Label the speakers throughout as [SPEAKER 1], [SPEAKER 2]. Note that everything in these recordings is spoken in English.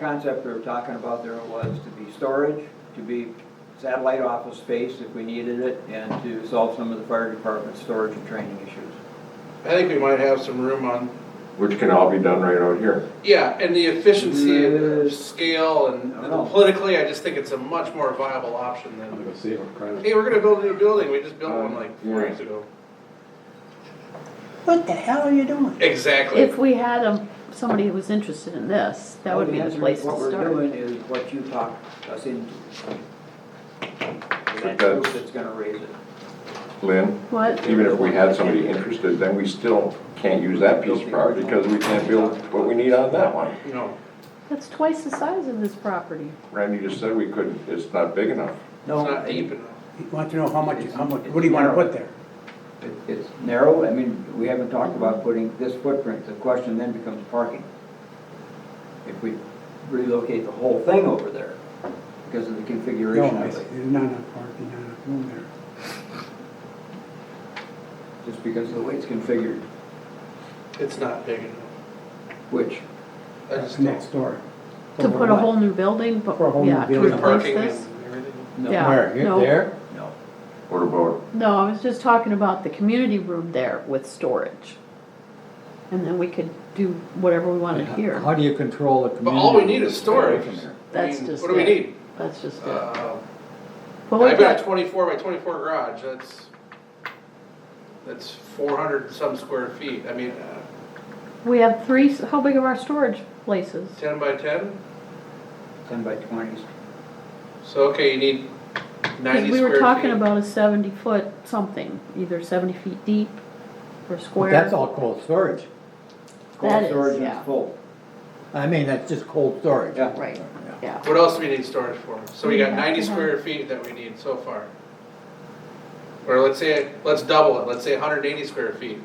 [SPEAKER 1] concept we were talking about there was to be storage, to be satellite office space if we needed it, and to solve some of the fire department storage and training issues.
[SPEAKER 2] I think we might have some room on,
[SPEAKER 3] which can all be done right out here.
[SPEAKER 2] yeah, and the efficiency and the scale and
[SPEAKER 1] I don't know.
[SPEAKER 2] politically, I just think it's a much more viable option
[SPEAKER 4] I'm
[SPEAKER 2] than,
[SPEAKER 4] gonna go see what Uh, crime.
[SPEAKER 2] hey, we're gonna build a new building, we just built one like four years ago.
[SPEAKER 5] What the hell are you doing?
[SPEAKER 2] Exactly.
[SPEAKER 6] If we had um, somebody who was interested in this, that would be the
[SPEAKER 1] Answer is
[SPEAKER 6] place to
[SPEAKER 1] What we're
[SPEAKER 6] start.
[SPEAKER 1] doing is what you talked us into. And
[SPEAKER 3] But
[SPEAKER 1] that's the
[SPEAKER 3] that's-
[SPEAKER 1] group that's gonna raise it.
[SPEAKER 3] Lynn,
[SPEAKER 6] What?
[SPEAKER 3] even if we had somebody interested, then we still can't use that piece of property because we can't build what we need on that one.
[SPEAKER 2] No,
[SPEAKER 6] That's twice the size of this property.
[SPEAKER 3] Randy just said we couldn't, it's not big enough.
[SPEAKER 2] it's not deep enough.
[SPEAKER 5] You want to know how much, how much, what do you want to put there?
[SPEAKER 1] It- It's narrow, I mean, we haven't talked about putting this footprint, the question then becomes parking. If we relocate the whole thing over there because of the
[SPEAKER 5] No,
[SPEAKER 1] configuration
[SPEAKER 5] there's
[SPEAKER 1] of it,
[SPEAKER 5] not enough parking, not enough room there.
[SPEAKER 1] just because of the way it's configured,
[SPEAKER 2] It's not big enough.
[SPEAKER 1] which,
[SPEAKER 2] I just
[SPEAKER 5] That's
[SPEAKER 2] don't.
[SPEAKER 5] next door.
[SPEAKER 6] To put a whole new building, but,
[SPEAKER 5] For a whole new
[SPEAKER 6] yeah, to
[SPEAKER 5] building.
[SPEAKER 2] With
[SPEAKER 6] replace
[SPEAKER 2] parking and
[SPEAKER 6] this?
[SPEAKER 2] everything.
[SPEAKER 1] no,
[SPEAKER 6] Yeah.
[SPEAKER 4] Where,
[SPEAKER 6] no.
[SPEAKER 4] you there?
[SPEAKER 1] no.
[SPEAKER 3] What about,
[SPEAKER 6] No, I was just talking about the community room there with storage. And then we could do whatever we wanted here.
[SPEAKER 7] How do you control the community?
[SPEAKER 2] But all we need is storage.
[SPEAKER 6] That's
[SPEAKER 2] I mean,
[SPEAKER 6] just
[SPEAKER 2] What do we
[SPEAKER 6] it.
[SPEAKER 2] need?
[SPEAKER 6] That's just it.
[SPEAKER 2] Uh,
[SPEAKER 6] Well,
[SPEAKER 2] I've
[SPEAKER 6] we've
[SPEAKER 2] got a
[SPEAKER 6] got,
[SPEAKER 2] twenty-four by twenty-four garage, that's, that's four hundred and some square feet, I mean, uh,
[SPEAKER 6] we have three, s- how big are our storage places?
[SPEAKER 2] ten by ten?
[SPEAKER 1] Ten by twenties.
[SPEAKER 2] So, okay, you need
[SPEAKER 6] Because
[SPEAKER 2] ninety square feet.
[SPEAKER 6] we were talking about a seventy foot something, either seventy feet deep or
[SPEAKER 7] But
[SPEAKER 6] square.
[SPEAKER 7] that's all cold storage.
[SPEAKER 6] That
[SPEAKER 1] Cold
[SPEAKER 6] is,
[SPEAKER 1] storage and
[SPEAKER 6] yeah.
[SPEAKER 1] it's full.
[SPEAKER 7] I mean, that's just cold storage.
[SPEAKER 1] Yeah.
[SPEAKER 6] Right, yeah.
[SPEAKER 2] What else do we need storage for? So we
[SPEAKER 6] We
[SPEAKER 2] got
[SPEAKER 6] have
[SPEAKER 2] ninety
[SPEAKER 6] to have-
[SPEAKER 2] square feet that we need so far. Or let's say, let's double it, let's say hundred and eighty square feet.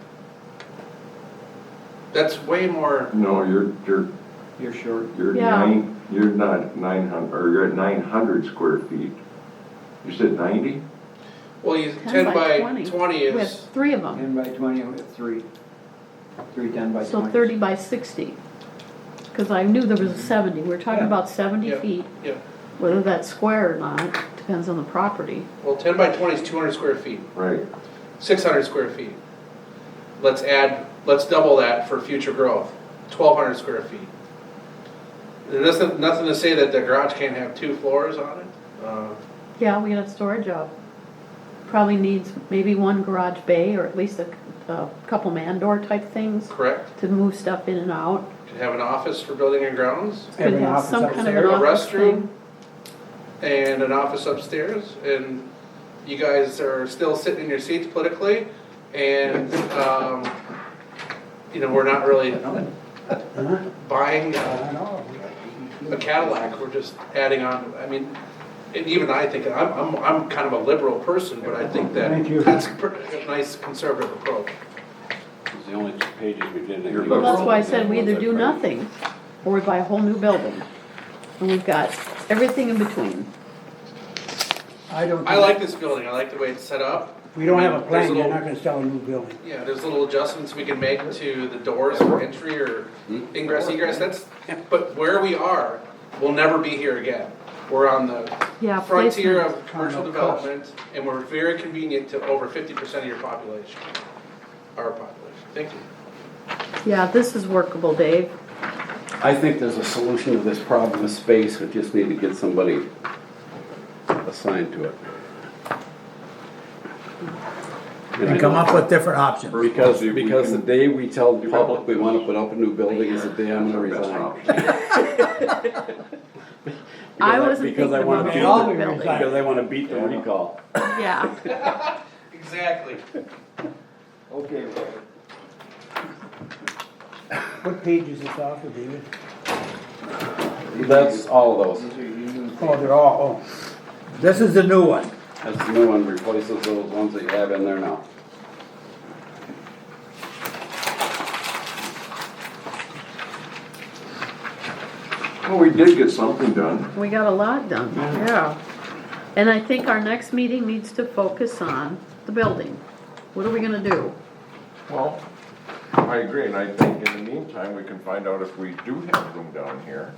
[SPEAKER 2] That's way more,
[SPEAKER 3] no, you're, you're,
[SPEAKER 1] You're short.
[SPEAKER 3] you're
[SPEAKER 6] Yeah.
[SPEAKER 3] nine, you're not nine hun, or you're at nine hundred square feet. You said ninety?
[SPEAKER 2] well, you, ten by twenty
[SPEAKER 6] We
[SPEAKER 2] is,
[SPEAKER 6] have three of them,
[SPEAKER 1] Ten by twenty, we have three, three ten by twenties.
[SPEAKER 6] so thirty by sixty. Because I knew there was a seventy, we were talking
[SPEAKER 1] Yeah.
[SPEAKER 6] about seventy
[SPEAKER 2] Yeah.
[SPEAKER 6] feet,
[SPEAKER 2] yeah,
[SPEAKER 6] whether that's square or not, depends on the property.
[SPEAKER 2] well, ten by twenty is two hundred square feet.
[SPEAKER 3] Right.
[SPEAKER 2] six hundred square feet. Let's add, let's double that for future growth, twelve hundred square feet. There's nothing, nothing to say that the garage can't have two floors on it. Uh,
[SPEAKER 6] Yeah, we got storage up. Probably needs maybe one garage bay or at least a, c- a couple man door type things
[SPEAKER 2] Correct,
[SPEAKER 6] to move stuff in and out.
[SPEAKER 2] could have an office for building and grounds,
[SPEAKER 5] Have
[SPEAKER 6] Could
[SPEAKER 5] an
[SPEAKER 6] have
[SPEAKER 5] office
[SPEAKER 6] some kind of
[SPEAKER 5] upstairs.
[SPEAKER 6] an
[SPEAKER 2] A
[SPEAKER 6] office
[SPEAKER 2] restroom.
[SPEAKER 6] thing.
[SPEAKER 2] and an office upstairs, and you guys are still sitting in your seats politically, and, um, you know, we're not really
[SPEAKER 5] Huh?
[SPEAKER 2] buying,
[SPEAKER 5] I
[SPEAKER 2] uh,
[SPEAKER 5] don't know.
[SPEAKER 2] a Cadillac, we're just adding on, I mean, and even I think, I'm, I'm, I'm kind of a liberal person, but I think that
[SPEAKER 5] Thank you.
[SPEAKER 2] that's a pretty- a nice conservative approach.
[SPEAKER 4] It's the only two pages we didn't.
[SPEAKER 3] Your
[SPEAKER 4] include.
[SPEAKER 6] Well, that's why I
[SPEAKER 4] The
[SPEAKER 6] said we
[SPEAKER 4] ones
[SPEAKER 6] either
[SPEAKER 4] I
[SPEAKER 6] do
[SPEAKER 4] printed.
[SPEAKER 6] nothing, or we buy a whole new building. And we've got everything in between.
[SPEAKER 5] I don't.
[SPEAKER 2] I like this building, I like the way it's set up.
[SPEAKER 5] If we don't have a
[SPEAKER 2] There's
[SPEAKER 5] plan, you're
[SPEAKER 2] little-
[SPEAKER 5] not gonna sell a new building.
[SPEAKER 2] Yeah, there's little adjustments we can make to the doors for entry or ingress, egress, that's, but where we are, we'll never be here again. We're on the
[SPEAKER 6] Yeah,
[SPEAKER 2] frontier
[SPEAKER 6] placement.
[SPEAKER 2] of commercial
[SPEAKER 5] Kind of cost.
[SPEAKER 2] development, and we're very convenient to over fifty percent of your population, our population, thank you.
[SPEAKER 6] Yeah, this is workable, Dave.
[SPEAKER 4] I think there's a solution to this problem of space, we just need to get somebody assigned to it. And I
[SPEAKER 7] And come up with different options.
[SPEAKER 4] Because,
[SPEAKER 3] See if we
[SPEAKER 4] because the
[SPEAKER 3] can-
[SPEAKER 4] day we tell the
[SPEAKER 3] Develop
[SPEAKER 4] public we wanna put up a new building is the day I'm gonna
[SPEAKER 3] That's our
[SPEAKER 4] resign.
[SPEAKER 3] best
[SPEAKER 6] I
[SPEAKER 4] Because I-
[SPEAKER 6] wasn't
[SPEAKER 4] because
[SPEAKER 6] thinking
[SPEAKER 4] I wanna
[SPEAKER 6] about
[SPEAKER 4] be-
[SPEAKER 6] the
[SPEAKER 5] All we
[SPEAKER 6] whole building.
[SPEAKER 5] resign.
[SPEAKER 4] Because I wanna beat the recall.
[SPEAKER 6] Yeah,
[SPEAKER 2] Exactly.
[SPEAKER 1] Okay, well,
[SPEAKER 5] What page is this off of, David?
[SPEAKER 4] That's all of those.
[SPEAKER 1] these are you.
[SPEAKER 5] Oh, they're all, oh,
[SPEAKER 7] This is the new one.
[SPEAKER 4] That's the new one, replaces those ones that you have in there now.
[SPEAKER 3] Well, we did get something done.
[SPEAKER 6] we got a lot done, yeah. And I think our next meeting needs to focus on the building. What are we gonna do?
[SPEAKER 3] Well, I agree, and I think in the meantime, we can find out if we do have room down here.